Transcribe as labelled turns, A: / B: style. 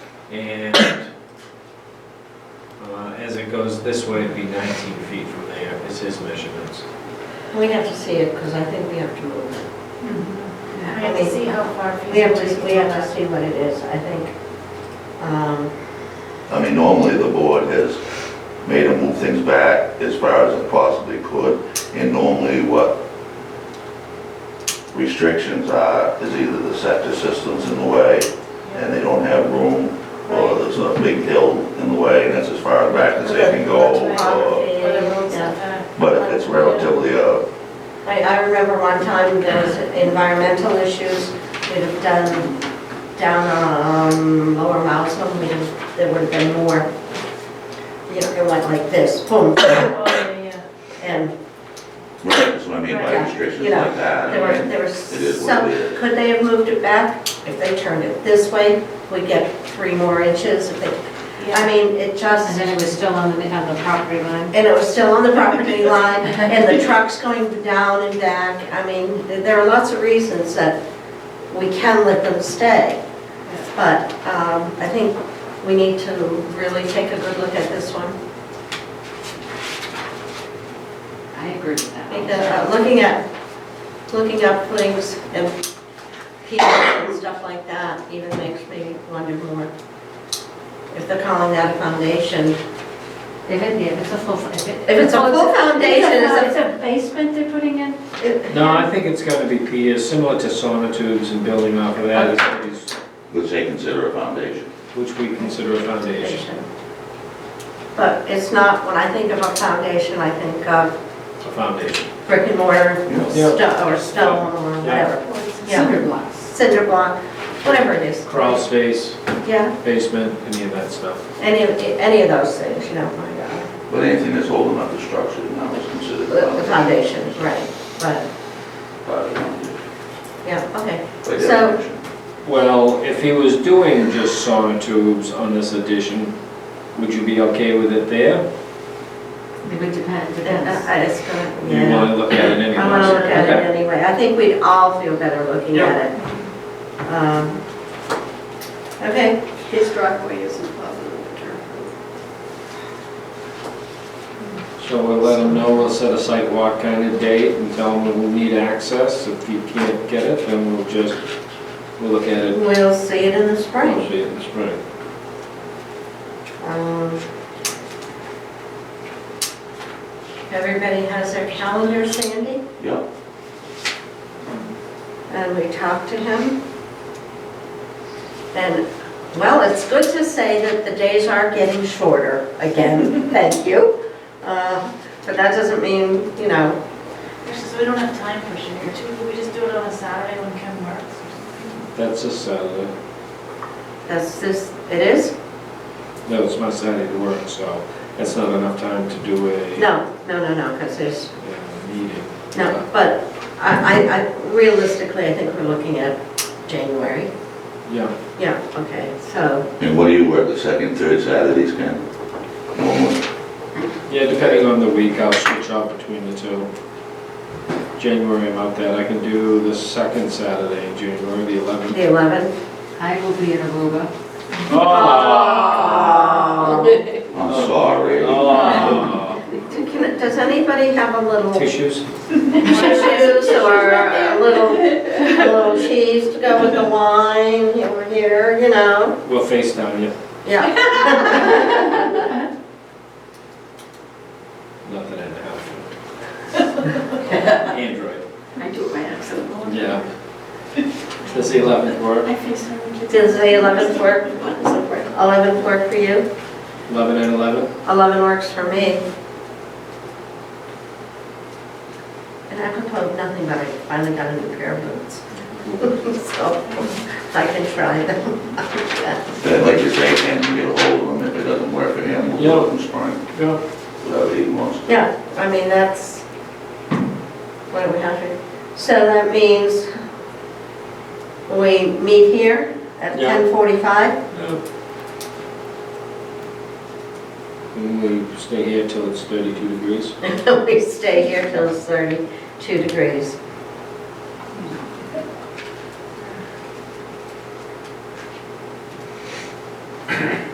A: And uh, as it goes this way, it'd be 19 feet from there, is his measurements.
B: We have to see it, because I think we have to move it.
C: I have to see how far feasible.
B: We have to,
C: it
B: we have
C: is.
B: to see what it is, I think. Um,
D: I mean, normally the board has made them move things back as far as it possibly could, and normally what restrictions are is either the septic system's in the way, and they don't have room, or there's a big hill in the way, and that's as far back as they can go, or,
C: Or the roads
B: Yeah.
C: are back.
D: but if it's relatively, uh,
B: I, I remember one time there was environmental issues, we'd have done down on um, Lower Mousum, we, there would have been more. You know, it went like this, boom,
C: Oh, yeah, yeah.
B: and
D: that's what I mean by restrictions like that.
B: there were,
D: I mean,
B: there were
D: It is what
B: some,
D: it is.
B: could they have moved it back? If they turned it this way, we'd get three more inches, if they, I mean, it
E: And
B: just,
E: then it was still on the, on the property line.
B: and it was still on the property line, and the truck's going down and back. I mean, there are lots of reasons that we can let them stay. But um, I think we need to really take a good look at this one.
E: I agree with
B: I
E: that.
B: think that, uh, Looking at, looking up things and people and stuff like that even makes me wonder more. If they're calling that a foundation,
E: If it, if it's a full. If it-
B: If it's a full foundation, it's a-
E: It's a basement they're putting in?
A: No, I think it's gonna be piers, similar to sonotubes and building off of that, it's gonna be-
D: Which they consider a foundation.
A: which we consider a foundation.
B: But it's not, when I think of a foundation, I think of
A: A foundation.
B: brick and mortar,
A: Yeah.
B: sto- or stone, or
A: Yeah.
B: whatever,
C: Or it's-
B: Yeah.
E: Cinder blocks.
B: cinder block, whatever it is.
A: Crawl space,
B: Yeah,
A: basement, any of that stuff.
B: any, of any of those things, you know, my God.
D: But anything that's holding up the structure now is considered a
B: The- the
D: foundation.
B: foundation, right, but,
D: part of the foundation.
B: yeah, okay.
D: By
B: So-
D: definition.
A: Well, if he was doing just sonotubes on this addition, would you be okay with it there?
E: It would depend,
B: And
C: Uh,
E: depends.
B: I I just Uh, gonna,
A: You
B: yeah,
A: wanna look at it anyway?
B: I wanna look at
A: Okay.
B: it anyway, I think we'd all feel better looking
A: Yeah.
B: at it. Um, Okay,
F: His driveway isn't plowed with the turf.
A: So we'll let them know, we'll set a site walk kind of date and tell them we'll need access. If you can't get it, then we'll just, we'll look at it.
B: we'll see it in the
A: We'll
B: spring.
A: see it in the spring.
B: Um, Everybody has their calendar, Sandy,
D: Yeah,
B: and we talked to him. And, well, it's good to say that the days are getting shorter again, thank you. Uh, But that doesn't mean, you know,
C: Actually, so we don't have time for sugar too, Could we just do it on a Saturday when Ken works.
A: That's a Saturday.
B: that's this, it is?
A: No, it's my Saturday to work, so that's not enough time to do a.
B: No, no, no, no, because there's,
A: uh, Meeting. Uh,
B: no, but I, I- I, realistically, I think we're looking at January.
A: Yeah,
B: Yeah, okay, so,
D: and what do you work, the second, third Saturdays, Ken? Normally?
A: yeah, depending on the week, I'll switch out between the two. January, I'm out that, I can do the second Saturday, in January, the
B: the
A: 11th.
B: 11th.
E: I will be in Aruba. Um,
B: Oh.
D: I'm sorry.
A: uh, Oh.
B: Can- Does anybody have a little tissues
A: Tissues?
B: or a little, a little cheese to go with the wine over here, you know?
A: We'll FaceTime you.
B: Yeah,
A: Nothing in the house. Android.
F: I do it by accident.
A: Yeah. Does the 11th work?
C: I face him.
B: does the 11th work, 11th work for you?
A: 11 and 11?
B: 11 works for me. And I proposed nothing, but I finally got a new pair of boots, so I can try them.
D: But like you say, Ken, you get a hold of him, if it doesn't work for him, we'll do it in spring,
A: Yeah.
D: whatever he wants.
B: Yeah, I mean, that's, what do we have here? So that means we meet here at
A: Yeah.
B: 10:45?
A: And we stay here till it's 32 degrees?
B: We stay here till it's 32 degrees.